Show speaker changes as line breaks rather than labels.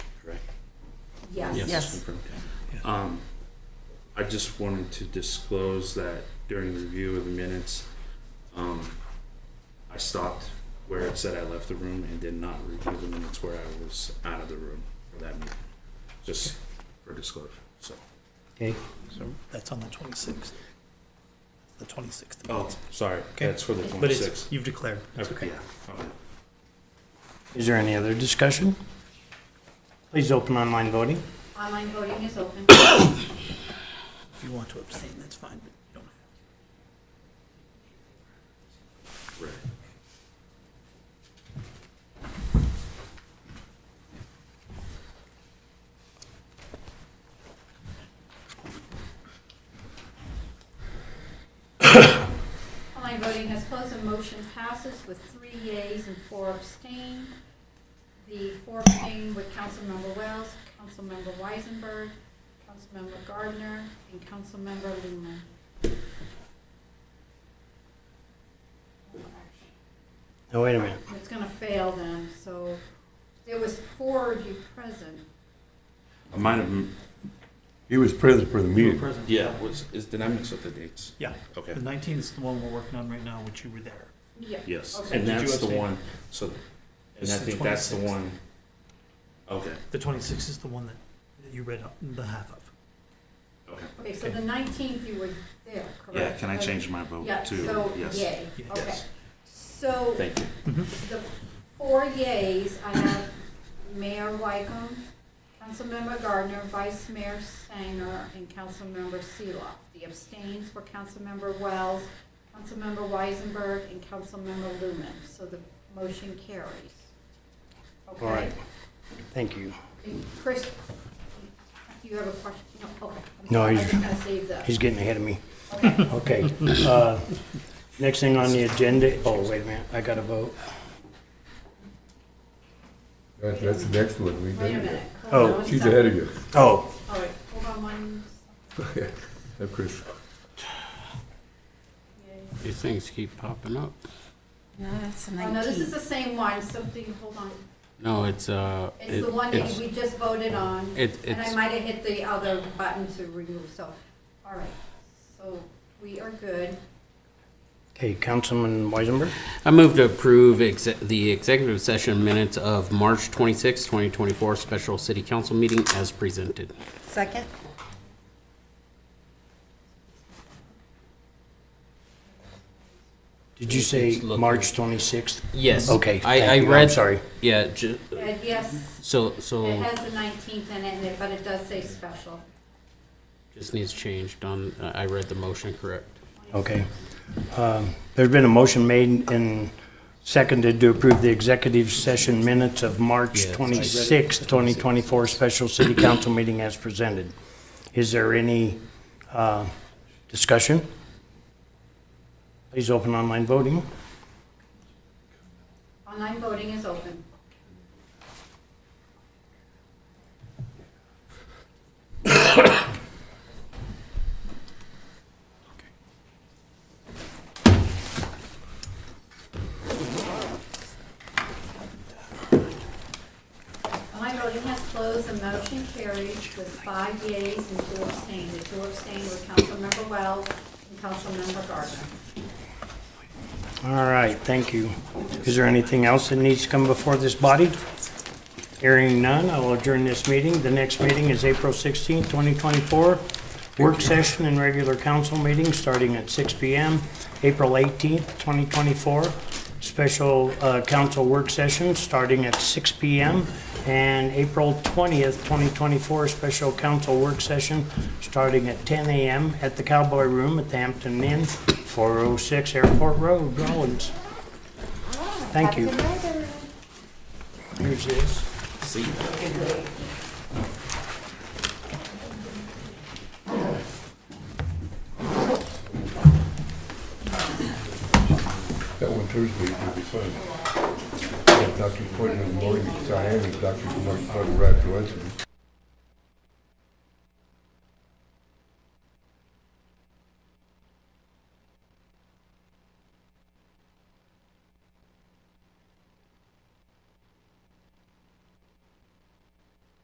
Yes.
Yes.
Yes.
confirmed. Um, I just wanted to disclose that during review of the minutes, um, I stopped where it said I left the room and did not review the minutes where I was out of the room for that meeting. Just for disclosure, so.
Okay,
That's on the 26th. The 26th.
Oh, sorry,
Okay.
that's for the
But it's,
twenty-sixth.
you've declared. That's okay.
Yeah, okay.
is there any other discussion? Please open online voting.
Online voting is open.
If you want to abstain, that's fine. but you don't have
Right.
Online voting has closed and motion passes with three yeas and four abstain. The four abstain with Councilmember Wells, Councilmember Weisenberg, Councilmember Gardner, and Councilmember Lumen.
Oh, wait a minute.
It's gonna fail then, so there was four of you present.
I might have,
He was present for the
to.
meeting.
Present.
yeah, was, is, did I mix up the dates?
Yeah.
Okay.
The 19th is the one we're working on right now, which you were there.
Yeah.
Yes,
Okay.
and
Did you
that's the
abstain?
one, so, and
It's
I
the
think that's the
26th.
one. Okay,
The 26th is the one that that you read up the half of.
okay.
Okay, so the nineteenth you were there, correct?
Yeah, can I change my vote
Yeah,
to,
so
yes,
yay,
Yes.
okay. So
thank you.
the four yays, I have Mayor Wykum, Councilmember Gardner, Vice Mayor Sanger, and Councilmember Seeloff. The abstains were Councilmember Wells, Councilmember Weisenberg, and Councilmember Lumen. So the motion carries.
All right,
Okay.
thank you.
And Chris, do you have a question? No, okay. I'm
No,
sorry, I
he's-
think I saved that.
He's getting ahead of me.
Okay.
Okay, uh, next thing on the agenda, oh, wait a minute, I gotta vote.
That- That's the next one. We
Wait a
did
minute.
it.
Hold
Oh,
on one
She's
second.
ahead of you.
Oh,
All right, hold on one. second.
Of course.
Yay.
These things keep popping up.
No, that's the
Oh, no, this is
19th.
the same one, something, hold on.
No, it's, uh.
It's the
it-
one that
it's-
we just voted on,
It,
and I
it's,
might have hit the other button to remove, so, all right. So we are good.
okay, Councilman Weisenberg,
I move to approve exe- the executive session minutes of March twenty sixth, 2024 special city council meeting as presented.
Second?
did you say
It's looking-
March 26th?
Yes.
Okay,
I, I
thank you, I'm
read,
sorry.
yeah, ju-
And yes,
so,
it
so
has the nineteenth in it, and it- but it does say special.
just needs changed on, I I read the motion correct.
Okay. Um, There's been a motion made and seconded to approve the executive session minutes of March
Yeah, I read it.
26, 2024, special city council meeting as presented. Is there any uh, discussion? Please open online voting.
Online voting is open. Online voting has closed, the motion carries with five yeas and two abstain. The two abstain were Councilmember Wells and Councilmember Gardner.
All right, thank you. Is there anything else that needs to come before this body? Hearing none, I will adjourn this meeting. The next meeting is April 16, 2024. Work session and regular council meeting starting at 6 PM. April 18, 2024, special uh, council work session starting at 6 PM. And April 20th, 2024, special council work session starting at 10 AM at the Cowboy Room at the Hampton Inn, 406 Airport Road, Rollins.
Ah,
Thank you. Here's this.
That one Thursday will be fun. Dr. Quinn in the morning, so I am Dr. Mark Carter right to answer.